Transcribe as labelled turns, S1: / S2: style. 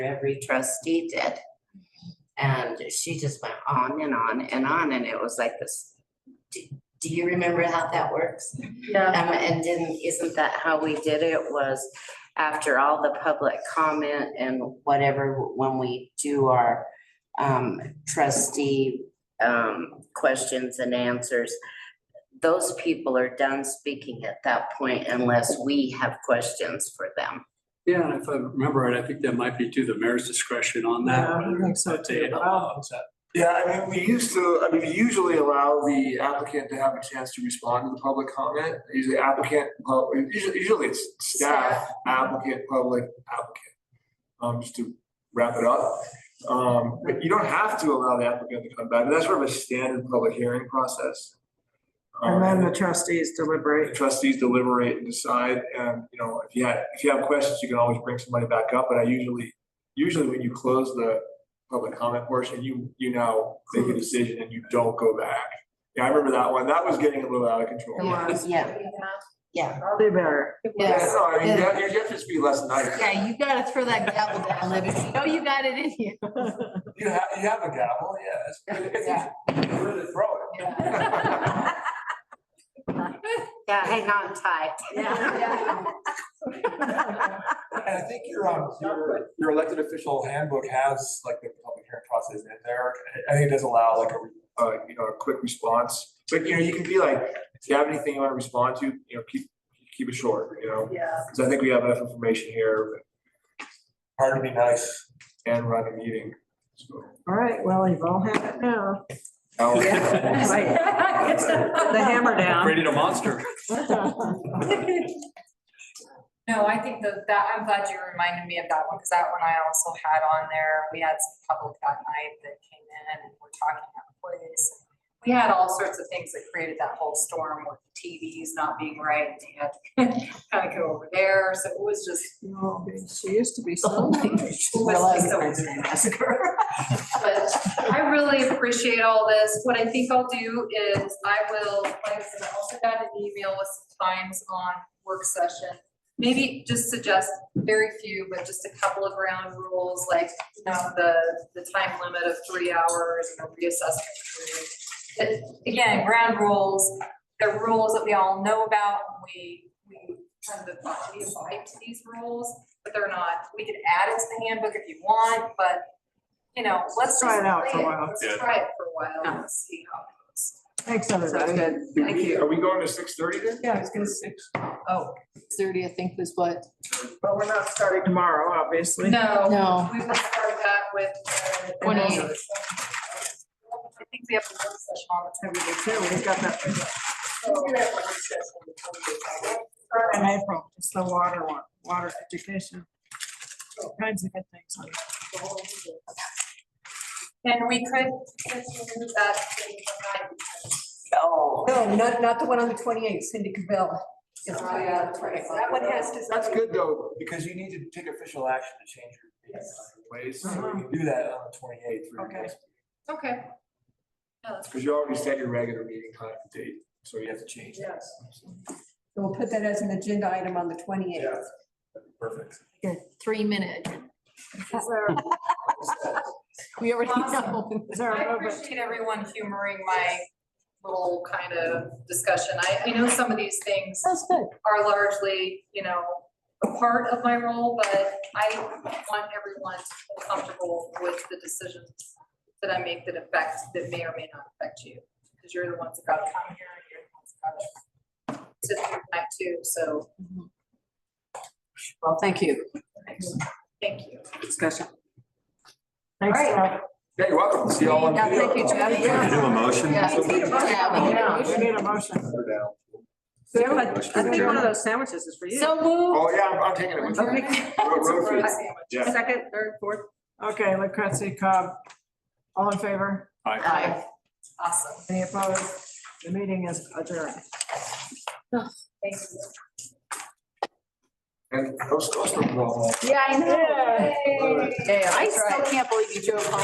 S1: every trustee did. And she just went on and on and on, and it was like this, do, do you remember how that works?
S2: Yeah,
S1: Um, and didn't, isn't that how we did it was after all the public comment and whatever, when we do our um, trustee um, questions and answers, those people are done speaking at that point unless we have questions for them.
S3: Yeah, and if I remember right, I think that might be to the mayor's discretion on that.
S4: Yeah, I
S3: whether
S4: think so
S3: that they uh,
S4: too.
S3: allow that.
S4: Yeah, I mean, we used to, I mean, we usually allow the applicant to have a chance to respond to the public comment. Usually applicant, uh, usually, usually it's staff, applicant, public, applicant. Um, just to wrap it up. Um, but you don't have to allow the applicant to come back. That's sort of a standard public hearing process.
S5: And then
S4: Um,
S5: the trustees
S4: the
S5: deliberate.
S4: trustees deliberate and decide, and, you know, if you had, if you have questions, you can always bring somebody back up, but I usually, usually when you close the public comment portion, you, you now make a decision and you don't go back. Yeah, I remember that one, that was getting a little out of control.
S5: It was.
S1: Yeah, yeah.
S5: I'll do better.
S4: Yeah, no, I mean, you have to just be less nice.
S2: yeah, you gotta throw that gavel down, let us know you got it in you.
S4: You have, you have a gavel, yeah. it's- it's- Where to throw it?
S1: Yeah, hang on tight.
S4: And I think your, um, your, your elected official handbook has like the public hearing process in there. I think it does allow like a, uh, you know, a quick response. But, you know, you can be like, if you have anything you want to respond to, you know, keep, keep it short, you know?
S5: Yeah.
S4: Because I think we have enough information here. Hard to be nice. And run a meeting. so.
S5: All right, well, you've all had it now.
S4: Hour.
S5: Right, The hammer down.
S3: Created a monster.
S6: No, I think that that, I'm glad you reminded me of that one, because that one I also had on there. We had some public that night that came in and were talking about place. We had all sorts of things that created that whole storm with TVs not being right. and They had to kind of go over there, so it was just.
S5: No, She used to be
S6: Oh,
S5: so nice.
S6: it was just a- But I really appreciate all this. What I think I'll do is I will, like I said, I also got an email with some times on work session. Maybe just suggest very few, but just a couple of ground rules, like, you know, the, the time limit of three hours and a reassessment. period. It- Again, ground rules, the rules that we all know about, we, we kind of we abide to these rules, but they're not, we can add it to the handbook if you want, but you know, let's
S5: Try it
S6: just
S5: out for a
S6: play
S5: while.
S6: Let's
S3: Yeah.
S6: try it for a while and see how it goes.
S5: Thanks, everybody.
S4: Are we- are we going to six thirty then?
S2: Yeah, I was gonna say, oh, thirty, I think was what,
S5: But we're not starting tomorrow, obviously.
S6: No,
S2: no,
S6: we will start that with. uh,
S2: 28.
S6: I think we have a work session on the twenty eighth.
S5: Sure, we've got that figured out in April, it's the water one, water education. All Kinds of good things on it.
S6: And we could consider that. thing for nine.
S7: Oh. No, not, not the one on the twenty-eighth, Cindy Cabell. Yes,
S6: Oh, yeah, that's right.
S7: That one has to.
S4: That's good though, because you need to take official action to change your ways, so we can do that on the twenty-eighth.
S5: Okay.
S6: Okay. Yeah, that's
S4: Because you already set your regular meeting time and date, so you have to change that.
S7: We'll put that as an agenda item on the twenty-eighth.
S4: Perfect.
S2: three minute. We already know.
S5: Is there a
S6: I
S5: movement?
S6: appreciate everyone humoring my little kind of discussion. I, I know some of these things
S2: Sounds good.
S6: are largely, you know, a part of my role, but I want everyone to feel comfortable with the decisions that I make that affect, that may or may not affect you, because you're the ones that gotta come here, and you're the ones that gotta sit through night too, so
S7: Well, thank you.
S6: thank you.
S7: Discussion.
S5: Thanks,
S6: All
S5: Rob.
S4: Yeah, you're welcome. See y'all on
S7: Yeah,
S4: video.
S7: thank you, Jeff.
S8: Can we do a motion?
S2: Yeah. Yeah, we
S5: Yeah,
S2: know.
S5: we need a motion.
S8: I think one of
S7: those sandwiches is for
S2: So moved.
S4: Oh, yeah, I'm- I'm taking it with me. Road food. Yeah.
S7: Second, third, fourth.
S5: Okay, Lucrezi Cobb, all in favor?
S2: Aye.
S6: Awesome.
S5: Any opposed? The meeting is adjourned.
S6: Thank you.
S4: And those, those are.
S2: Yeah, I
S5: Yeah.
S2: Yeah, I still can't believe you drove home.